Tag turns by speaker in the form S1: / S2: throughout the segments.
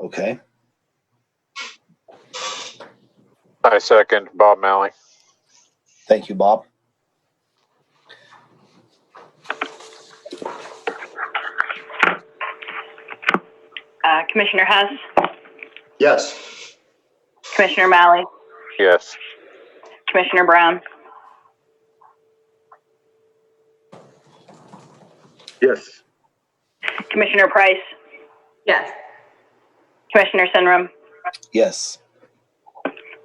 S1: Okay,
S2: I second Bob Malley.
S1: thank you, Bob.
S3: Uh, Commissioner Hess,
S4: Yes.
S3: Commissioner Malley,
S2: Yes.
S3: Commissioner Brown,
S4: Yes.
S3: Commissioner Price,
S5: Yes.
S3: Commissioner Sunrum.
S1: Yes,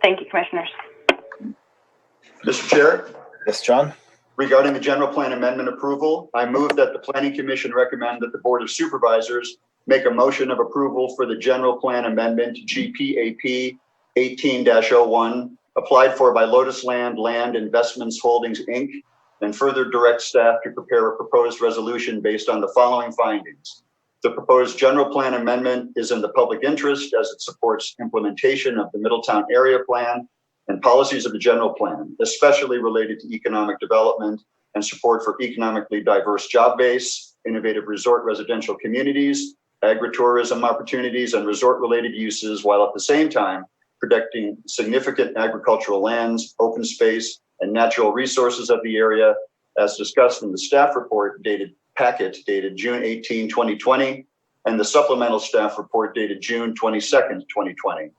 S3: Thank you, Commissioners.
S4: Mr. Chair,
S1: yes, John?
S4: regarding the general plan amendment approval, I move that the planning commission recommend that the board of supervisors make a motion of approval for the general plan amendment GPAP eighteen oh one applied for by Lotus Land Land Investments Holdings, Inc. And further direct staff to prepare a proposed resolution based on the following findings. The proposed general plan amendment is in the public interest as it supports implementation of the Middletown Area Plan and policies of the general plan, especially related to economic development and support for economically diverse job base, innovative resort residential communities, agritourism opportunities, and resort-related uses, while at the same time protecting significant agricultural lands, open space, and natural resources of the area, as discussed in the staff report dated packet dated June 18, 2020, and the supplemental staff report dated June 22nd, 2020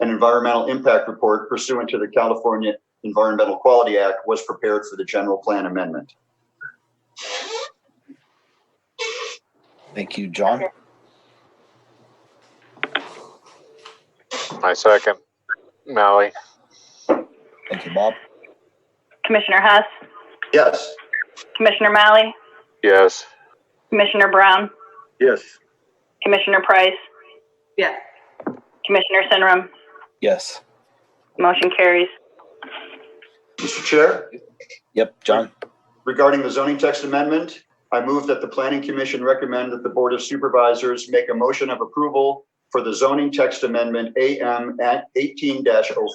S4: an environmental impact report pursuant to the California Environmental Quality Act was prepared for the general plan amendment.
S1: Thank you, John.
S2: I second Malley.
S1: Thank you, Bob.
S3: Commissioner Hess,
S4: Yes.
S3: Commissioner Malley,
S2: Yes.
S3: Commissioner Brown,
S4: Yes.
S3: Commissioner Price,
S5: Yes.
S3: Commissioner Sunrum.
S1: Yes,
S3: Motion carries.
S4: Mr. Chair,
S1: yep, John?
S4: regarding the zoning text amendment, I move that the planning commission recommend that the board of supervisors make a motion of approval for the zoning text amendment AM at eighteen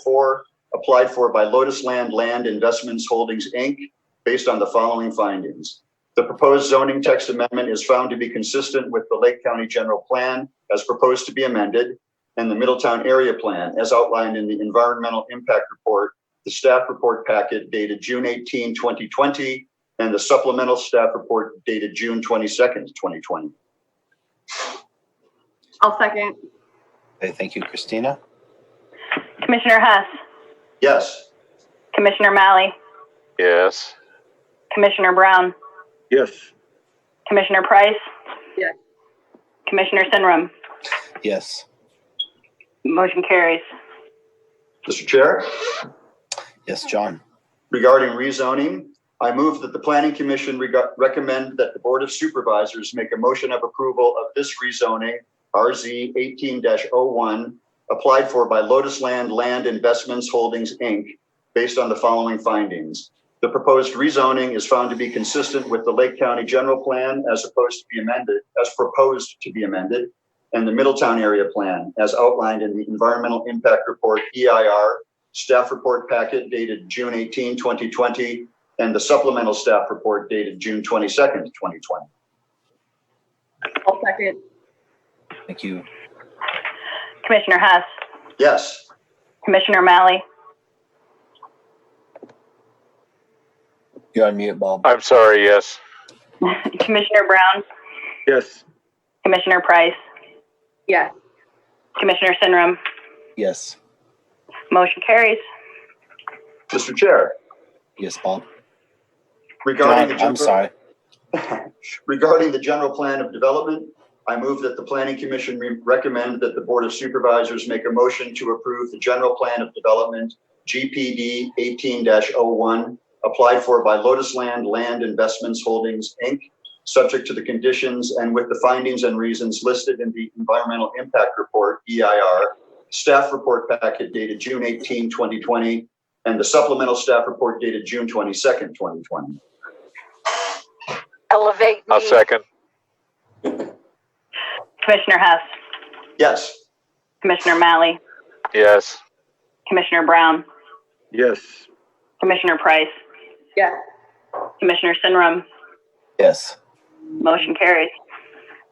S4: 4 applied for by Lotus Land Land Investments Holdings, Inc., based on the following findings. The proposed zoning text amendment is found to be consistent with the Lake County General Plan as proposed to be amended and the Middletown Area Plan as outlined in the Environmental Impact Report, the staff report packet dated June 18, 2020, and the supplemental staff report dated June 22nd, 2020.
S5: I'll second.
S1: Okay, thank you, Christina.
S3: Commissioner Hess,
S4: Yes.
S3: Commissioner Malley,
S2: Yes.
S3: Commissioner Brown,
S4: Yes.
S3: Commissioner Price.
S5: Yes.
S3: Commissioner Sunrum.
S1: Yes,
S3: Motion carries.
S4: Mr. Chair?
S1: yes, John?
S4: Regarding rezoning, I move that the planning commission reg- recommend that the board of supervisors make a motion of approval of this rezoning, RZ eighteen oh one applied for by Lotus Land Land Investments Holdings, Inc., based on the following findings. The proposed rezoning is found to be consistent with the Lake County General Plan as opposed to be amended, as proposed to be amended, and the Middletown Area Plan as outlined in the Environmental Impact Report, E EIR, staff report packet dated June 18, 2020, and the supplemental staff report dated June 22nd, 2020.
S5: I'll second.
S1: Thank you,
S3: Commissioner Hess,
S4: Yes.
S3: Commissioner Malley,
S1: you're on mute, Bob.
S2: I'm sorry. Yes.
S3: Commissioner Brown,
S4: Yes.
S3: Commissioner Price,
S5: Yes.
S3: Commissioner Sunrum.
S1: Yes,
S3: Motion carries.
S4: Mr. Chair,
S1: yes, Bob.
S4: regarding
S1: John,
S4: the.
S1: I'm sorry,
S4: Regarding the general plan of development, I move that the planning commission re- recommend that the board of supervisors make a motion to approve the general plan of development, GPD eighteen oh one applied for by Lotus Land Land Investments Holdings, Inc., subject to the conditions and with the findings and reasons listed in the environmental impact report, EIR, staff report packet dated June 18, 2020, and the supplemental staff report dated June twenty-second, twenty twenty.
S6: elevate me.
S2: I'll second.
S3: Commissioner Hess,
S4: Yes.
S3: Commissioner Malley,
S2: Yes.
S3: Commissioner Brown,
S4: Yes.
S3: Commissioner Price,
S5: Yes.
S3: Commissioner Sunrum.
S1: yes,
S3: Motion carries.